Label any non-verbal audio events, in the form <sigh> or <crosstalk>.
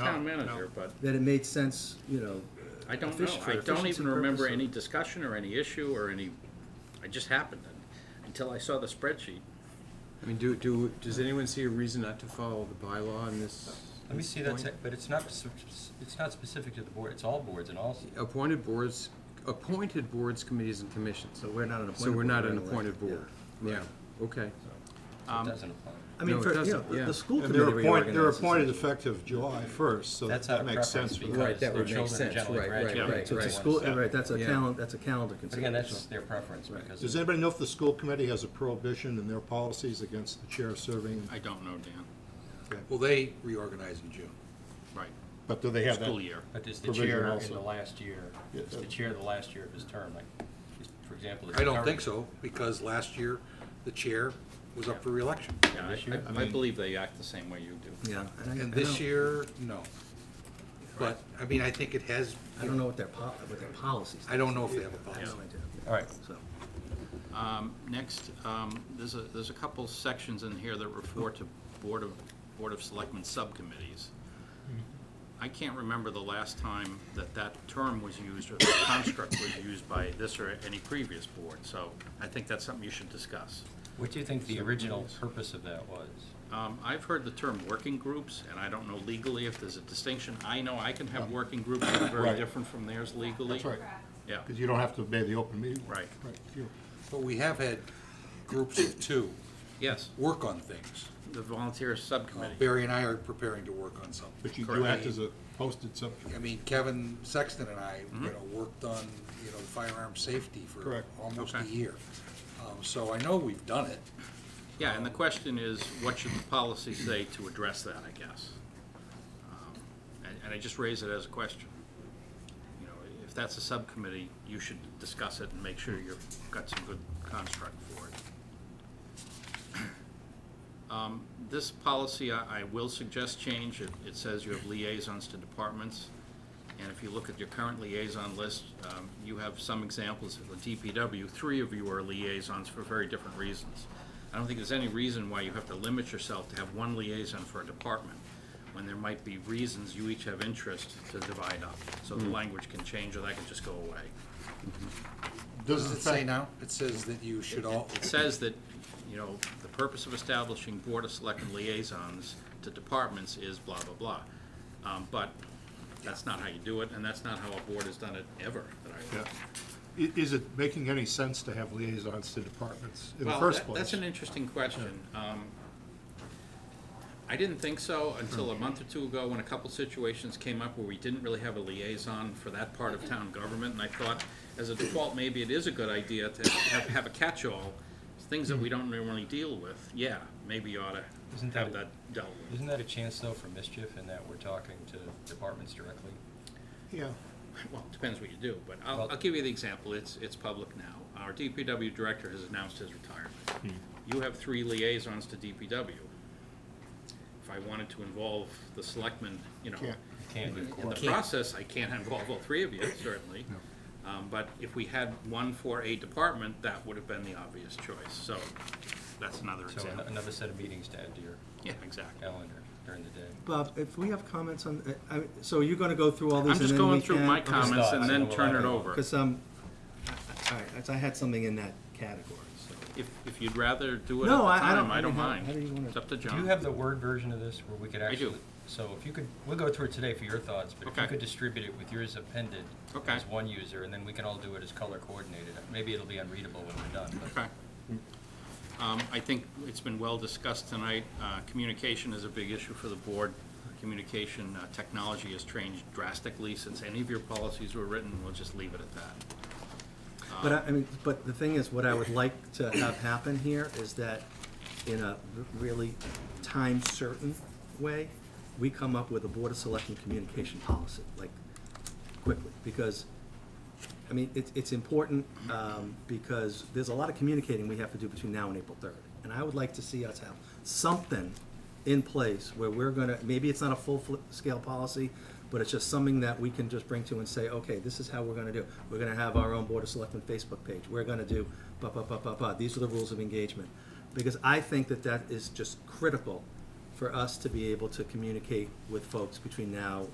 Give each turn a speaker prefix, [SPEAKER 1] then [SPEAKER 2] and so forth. [SPEAKER 1] town
[SPEAKER 2] no.
[SPEAKER 1] manager, but
[SPEAKER 3] that it made sense, you know.
[SPEAKER 1] I don't know.
[SPEAKER 3] effic- for
[SPEAKER 1] I don't
[SPEAKER 3] efficiency
[SPEAKER 1] even remember
[SPEAKER 3] purposes.
[SPEAKER 1] any discussion or any issue or any, it just happened and- until I saw the spreadsheet.
[SPEAKER 4] I mean, do, do, does anyone see a reason not to follow the bylaw in this?
[SPEAKER 2] Let me
[SPEAKER 4] this
[SPEAKER 2] see that,
[SPEAKER 4] point?
[SPEAKER 2] sec- but it's not, s- s- it's not specific to the board, it's all boards and all,
[SPEAKER 4] Appointed boards, appointed boards, committees, and commissions.
[SPEAKER 3] So we're not an appointed.
[SPEAKER 4] So we're not
[SPEAKER 3] board,
[SPEAKER 4] an
[SPEAKER 3] we're elected,
[SPEAKER 4] appointed board.
[SPEAKER 3] yeah.
[SPEAKER 4] Yeah, okay. Um,
[SPEAKER 2] so it doesn't apply.
[SPEAKER 3] I mean,
[SPEAKER 4] No, it
[SPEAKER 3] for, you know,
[SPEAKER 4] doesn't,
[SPEAKER 3] the-
[SPEAKER 4] yeah.
[SPEAKER 3] the school
[SPEAKER 5] And
[SPEAKER 3] committee
[SPEAKER 5] they're appointed, they're
[SPEAKER 3] reorganizes
[SPEAKER 5] appointed
[SPEAKER 3] it.
[SPEAKER 5] effective July first, so
[SPEAKER 2] That's
[SPEAKER 5] that
[SPEAKER 2] out of
[SPEAKER 5] makes
[SPEAKER 2] preference
[SPEAKER 5] sense for
[SPEAKER 2] because
[SPEAKER 5] that.
[SPEAKER 4] Right, that
[SPEAKER 2] their
[SPEAKER 4] would make
[SPEAKER 2] children
[SPEAKER 4] sense,
[SPEAKER 2] generally
[SPEAKER 4] right, right,
[SPEAKER 2] graduate
[SPEAKER 3] So
[SPEAKER 4] right,
[SPEAKER 2] before
[SPEAKER 3] it's a
[SPEAKER 2] they
[SPEAKER 3] school,
[SPEAKER 2] want to
[SPEAKER 3] right, that's a
[SPEAKER 4] Yeah.
[SPEAKER 3] calendar, that's a calendar
[SPEAKER 2] But again,
[SPEAKER 3] consideration.
[SPEAKER 2] that's their preference
[SPEAKER 5] Does
[SPEAKER 2] because,
[SPEAKER 5] anybody know if the school committee has a prohibition in their policies against the chair serving?
[SPEAKER 1] I don't know, Dan.
[SPEAKER 6] Well, they reorganize in June.
[SPEAKER 1] Right.
[SPEAKER 5] But do they have that?
[SPEAKER 1] School year.
[SPEAKER 2] but is the
[SPEAKER 5] Provision
[SPEAKER 2] chair in
[SPEAKER 5] also.
[SPEAKER 2] the last year,
[SPEAKER 5] Yeah,
[SPEAKER 2] is the
[SPEAKER 5] that-
[SPEAKER 2] chair the last year of his term, like, is- for example? is
[SPEAKER 6] I
[SPEAKER 2] the
[SPEAKER 6] don't
[SPEAKER 2] current-
[SPEAKER 6] think so, because last year, the chair was up for reelection.
[SPEAKER 1] Yeah,
[SPEAKER 2] This year?
[SPEAKER 1] I- I, I believe they act the same way you do.
[SPEAKER 3] Yeah. I-
[SPEAKER 6] And
[SPEAKER 3] I
[SPEAKER 6] this
[SPEAKER 3] don't-
[SPEAKER 6] year, no. But, I mean, I think it has,
[SPEAKER 3] I don't know what their pol, what their policies.
[SPEAKER 6] I don't know if they have a
[SPEAKER 3] I
[SPEAKER 6] policy.
[SPEAKER 3] have no idea.
[SPEAKER 2] All right,
[SPEAKER 3] So,
[SPEAKER 1] Um, next, um, there's a, there's a couple sections in here that refer to Board of, Board of Selectmen subcommittees. I can't remember the last time that that term was used or the construct was used by this or any previous board, so I think that's something you should discuss.
[SPEAKER 2] what do you think the original purpose of that was?
[SPEAKER 1] Um, I've heard the term working groups, and I don't know legally if there's a distinction. I know I can have working groups that are very
[SPEAKER 5] Right.
[SPEAKER 1] different from theirs legally.
[SPEAKER 5] That's right,
[SPEAKER 1] Yeah,
[SPEAKER 5] because you don't have to obey the open meeting. law.
[SPEAKER 1] Right.
[SPEAKER 5] Right. you-
[SPEAKER 6] But we have had groups of two
[SPEAKER 1] yes,
[SPEAKER 6] work on things.
[SPEAKER 1] the volunteer subcommittee.
[SPEAKER 6] Barry and I are preparing to work on something.
[SPEAKER 5] But you do
[SPEAKER 1] Correct.
[SPEAKER 5] act as a posted subcommittee.
[SPEAKER 6] I mean, Kevin Sexton and I,
[SPEAKER 1] Mm-hmm.
[SPEAKER 6] you know, worked on, you know, firearm safety for
[SPEAKER 5] Correct.
[SPEAKER 6] almost a
[SPEAKER 1] Okay.
[SPEAKER 6] year. Um, So I know we've done it.
[SPEAKER 1] Yeah, and the question is, what should the policy say to address that, I guess? Um, And, and I just raise it as a question. You know, if that's a subcommittee, you should discuss it and make sure you've got some good construct for it. Um, This policy, I, I will suggest change. It, it says you have liaisons to departments. And if you look at your current liaison list, um, you have some examples of the DPW. Three of you are liaisons for very different reasons. I don't think there's any reason why you have to limit yourself to have one liaison for a department, when there might be reasons you each have interest to divide up. So the language can change, or that can just go away.
[SPEAKER 6] Does it say now? It says that you should all,
[SPEAKER 1] It says that, you know, the purpose of establishing Board of Selectmen liaisons to departments is blah, blah, blah. Um, But that's not how you do it, and that's not how a board has done it ever, that I
[SPEAKER 5] Yeah. I- Is it making any sense to have liaisons to departments in the
[SPEAKER 1] Well,
[SPEAKER 5] first
[SPEAKER 1] that-
[SPEAKER 5] place?
[SPEAKER 1] That's an interesting question. Um, I didn't think so until a
[SPEAKER 5] Hmm.
[SPEAKER 1] month or two ago, when a couple situations came up where we didn't really have a liaison for that part of town government, and I thought, as a default, maybe it is a good idea to have, have a catch-all, things that we
[SPEAKER 5] Hmm.
[SPEAKER 1] don't normally deal with, yeah, maybe you ought to
[SPEAKER 2] Isn't
[SPEAKER 1] have that
[SPEAKER 2] that-
[SPEAKER 1] dealt with.
[SPEAKER 2] Isn't that a chance though for mischief in that we're talking to departments directly?
[SPEAKER 5] Yeah,
[SPEAKER 1] Well, it depends what you do, but I'll,
[SPEAKER 2] Well-
[SPEAKER 1] I'll give you the example, it's, it's public now. Our DPW director has announced his retirement.
[SPEAKER 3] Hmm.
[SPEAKER 1] You have three liaisons to DPW. If I wanted to involve the selectmen, you know,
[SPEAKER 5] Yeah.
[SPEAKER 2] You can't do
[SPEAKER 1] in the process, I can't <laughs> involve all three of you, certainly. Um, but if we had one for a department, that would have been the obvious choice, so that's another
[SPEAKER 3] uh,
[SPEAKER 2] So an-
[SPEAKER 1] example.
[SPEAKER 2] another set of meetings to add to your
[SPEAKER 1] Yeah, exactly.
[SPEAKER 2] calendar during the day.
[SPEAKER 3] Bob, if we have comments on, uh, I, I- so you're gonna go through all these
[SPEAKER 1] I'm
[SPEAKER 3] and then
[SPEAKER 1] just
[SPEAKER 3] we
[SPEAKER 1] going through
[SPEAKER 3] can-
[SPEAKER 1] my
[SPEAKER 3] okay.
[SPEAKER 1] comments and
[SPEAKER 2] thoughts,
[SPEAKER 1] then
[SPEAKER 2] and we'll
[SPEAKER 1] turn
[SPEAKER 2] have
[SPEAKER 1] it
[SPEAKER 2] it.
[SPEAKER 1] over.
[SPEAKER 3] Because, um, I- I- all right, that's- I had something in that category, so.
[SPEAKER 1] If, if you'd rather do it at the
[SPEAKER 3] No, I- I don't-
[SPEAKER 1] time, I
[SPEAKER 3] I
[SPEAKER 1] don't
[SPEAKER 3] mean, how-
[SPEAKER 1] mind.
[SPEAKER 3] how do you wanna-
[SPEAKER 1] It's up to
[SPEAKER 2] Do
[SPEAKER 1] John.
[SPEAKER 2] you have the Word version of this where we could
[SPEAKER 1] I do.
[SPEAKER 2] actually? So if you could, we'll go through it today for your thoughts, but if
[SPEAKER 1] Okay.
[SPEAKER 2] you could distribute it with yours appended
[SPEAKER 1] Okay.
[SPEAKER 2] as one user, and then we can all do it as color coordinated. Maybe it'll be unreadable when we're done. but-
[SPEAKER 1] Okay. Um, I think it's been well discussed tonight. Uh, Communication is a big issue for the board. Communication uh, technology has changed drastically since any of your policies were written. We'll just leave it at that.
[SPEAKER 3] But I, I mean, but the thing is, what I would like to have happen here is that in a really time-certain way, we come up with a Board of Selectmen communication policy, like, quickly, because, I mean, it's, it's important, um, because there's a lot of communicating we have to do between now and April third. And I would like to see us have something in place where we're gonna, maybe it's not a full-scale policy, but it's just something that we can just bring to and say, okay, this is how we're gonna do. We're gonna have our own Board of Selectmen Facebook page. We're gonna do ba, ba, ba, ba, ba. These are the rules of engagement. Because I think that that is just critical for us to be able to communicate with folks between now